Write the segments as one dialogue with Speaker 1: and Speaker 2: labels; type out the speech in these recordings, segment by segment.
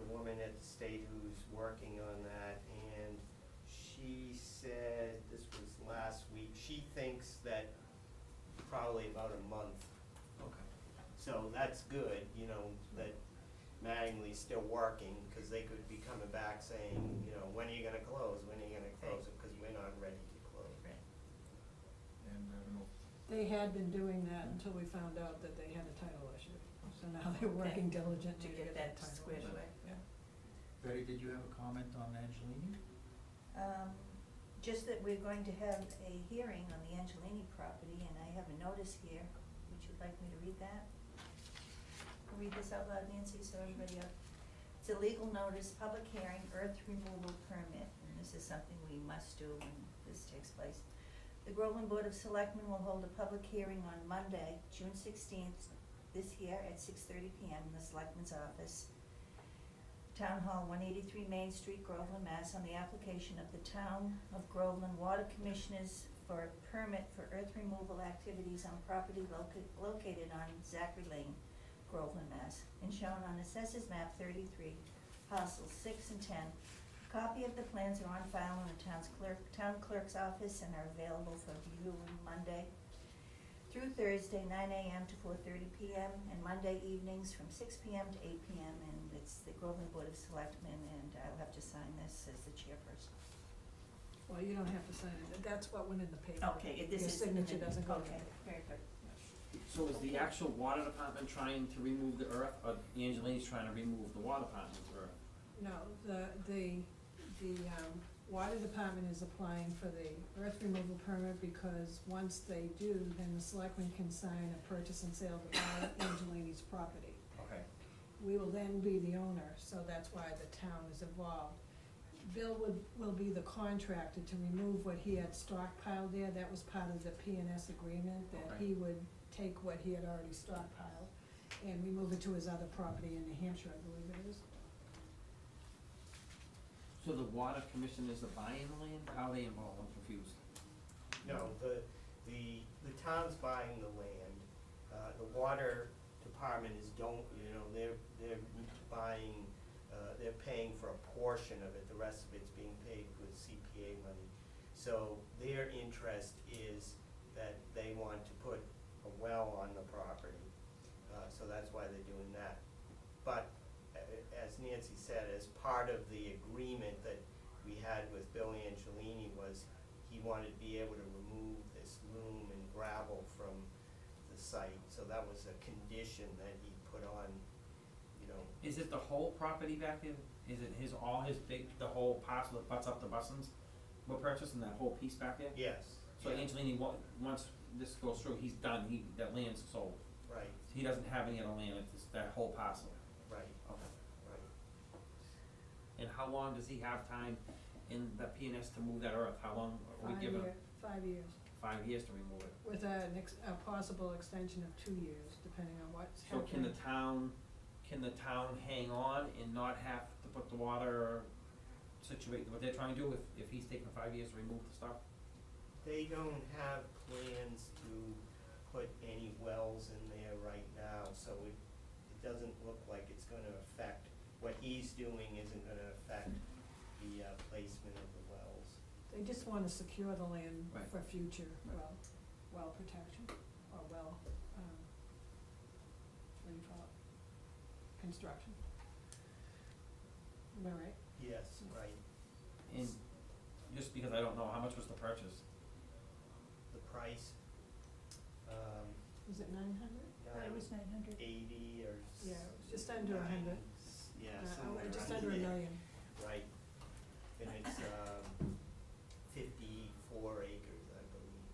Speaker 1: the state who's working on that, and she said, this was last week, she thinks that probably about a month.
Speaker 2: Okay.
Speaker 1: So that's good, you know, that Mattingly's still working, because they could be coming back saying, you know, when are you gonna close, when are you gonna close it, because we're not ready to close.
Speaker 3: Right.
Speaker 2: And uh, I don't know,
Speaker 4: They had been doing that until we found out that they had a title issue, so now they're
Speaker 3: Okay.
Speaker 4: working diligently
Speaker 3: To
Speaker 4: to
Speaker 3: get that
Speaker 4: title
Speaker 3: squared
Speaker 4: issue.
Speaker 3: away.
Speaker 4: Yeah.
Speaker 2: Betty, did you have a comment on Angelini?
Speaker 3: Um, just that we're going to have a hearing on the Angelini property, and I have a notice here. Would you like me to read that? Read this out loud, Nancy, so everybody up. It's a legal notice, public hearing, earth removal permit, and this is something we must do when this takes place. The Groveland Board of Selectmen will hold a public hearing on Monday, June sixteenth, this year at six thirty PM in the Selectmen's office. Town Hall, one eighty-three Main Street, Groveland, Mass, on the application of the Town of Groveland Water Commissioners for a permit for earth removal activities on property loca- located on Zachary Lane, Groveland, Mass, and shown on Assessors Map thirty-three, parcels six and ten. Copy of the plans are on file in the town's clerk, town clerk's office and are available for viewing Monday through Thursday, nine AM to four thirty PM, and Monday evenings from six PM to eight PM, and it's the Groveland Board of Selectmen, and I'll have to sign this as the chairperson.
Speaker 4: Well, you don't have to sign it, that's what went in the paper.
Speaker 3: Okay, this is.
Speaker 4: Your signature doesn't go in the
Speaker 3: Okay,
Speaker 4: paper.
Speaker 3: very good.
Speaker 5: So is the actual water department trying to remove the earth, or Angelini's trying to remove the water department's earth?
Speaker 4: No, the, the, the, um, water department is applying for the earth removal permit because once they do, then the selectmen can sign a purchase and sale of all Angelini's property.
Speaker 1: Okay.
Speaker 4: We will then be the owner, so that's why the town is involved. Bill would, will be the contractor to remove what he had stockpiled there, that was part of the P and S agreement, that
Speaker 5: Okay.
Speaker 4: he would take what he had already stockpiled and remove it to his other property in New Hampshire, I believe it is.
Speaker 5: So the water commission is the buying the land, how are they involved, I'm confused.
Speaker 1: No, the, the, the town's buying the land, uh, the water department is don't, you know, they're, they're buying, uh, they're paying for a portion of it, the rest of it's being paid with CPA money. So their interest is that they want to put a well on the property, uh, so that's why they're doing that. But uh, as Nancy said, as part of the agreement that we had with Bill Angelini was he wanted to be able to remove this loom and gravel from the site. So that was a condition that he put on, you know,
Speaker 5: Is it the whole property back in, is it his, all his big, the whole parcel that butts up to Bussins? We're purchasing that whole piece back there?
Speaker 1: yes,
Speaker 5: So
Speaker 1: yeah,
Speaker 5: Angelini, wa- once this goes through, he's done, he, that land's sold,
Speaker 1: right,
Speaker 5: he doesn't have any other land, it's just that whole parcel,
Speaker 1: right,
Speaker 5: okay.
Speaker 1: right.
Speaker 5: And how long does he have time in the PNS to move that earth? How long are we giving him?
Speaker 4: Five year, five years,
Speaker 5: Five years to remove it.
Speaker 4: with a, ex a possible extension of two years, depending on what's
Speaker 5: So
Speaker 4: happening.
Speaker 5: can the town, can the town hang on and not have to put the water situate, what they're trying to do if, if he's taking five years to remove the stuff?
Speaker 1: They don't have plans to put any wells in there right now, so it, it doesn't look like it's gonna affect, what he's doing isn't gonna affect the uh, placement of the wells.
Speaker 4: They just wanna secure the land
Speaker 5: Right.
Speaker 4: for future
Speaker 5: Right.
Speaker 4: well, well protection, or well, um, what do you call it? Construction. Am I right?
Speaker 1: Yes, right,
Speaker 5: And just because I don't know, how much was the purchase?
Speaker 1: the price, um,
Speaker 4: Was it nine hundred?
Speaker 3: I
Speaker 1: nine
Speaker 3: was nine hundred.
Speaker 1: eighty or s-
Speaker 4: Yeah, it was just under a
Speaker 1: nine,
Speaker 4: hundred.
Speaker 1: s- Yeah, somewhere under
Speaker 4: Uh, Just under a
Speaker 1: there.
Speaker 4: million.
Speaker 1: Right, and it's, um, fifty-four acres, I believe.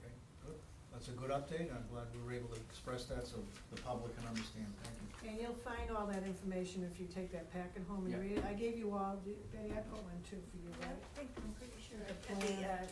Speaker 2: Okay, good. That's a good update. I'm glad we were able to express that so the public can understand. Thank you.
Speaker 4: And you'll find all that information if you take that packet home
Speaker 5: Yeah.
Speaker 4: and read it. I gave you all, Betty, I put one too for you,
Speaker 3: I
Speaker 4: right?
Speaker 3: think, I'm pretty sure.
Speaker 4: The
Speaker 3: that The,
Speaker 4: plan.
Speaker 3: uh,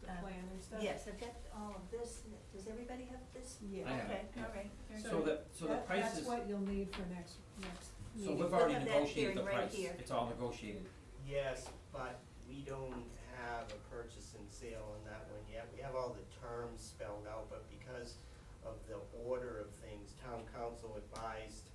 Speaker 4: The
Speaker 3: Uh,
Speaker 4: plan and stuff?
Speaker 3: yes, I've got all of this. Does everybody have this?
Speaker 4: Yeah.
Speaker 5: I have it,
Speaker 3: Okay,
Speaker 5: yeah.
Speaker 3: all right, very
Speaker 5: So
Speaker 3: good.
Speaker 5: that, so the
Speaker 4: That-
Speaker 5: price
Speaker 4: That's
Speaker 5: is,
Speaker 4: what you'll need for next, next
Speaker 5: so
Speaker 4: meeting.
Speaker 5: we've
Speaker 3: We'll
Speaker 5: already
Speaker 3: have that
Speaker 5: negotiated the
Speaker 3: hearing right
Speaker 5: price,
Speaker 3: here.
Speaker 5: it's all negotiated.
Speaker 1: Yes, but we don't have a purchase and sale on that one yet. We have all the terms spelled out, but because of the order of things, town council advised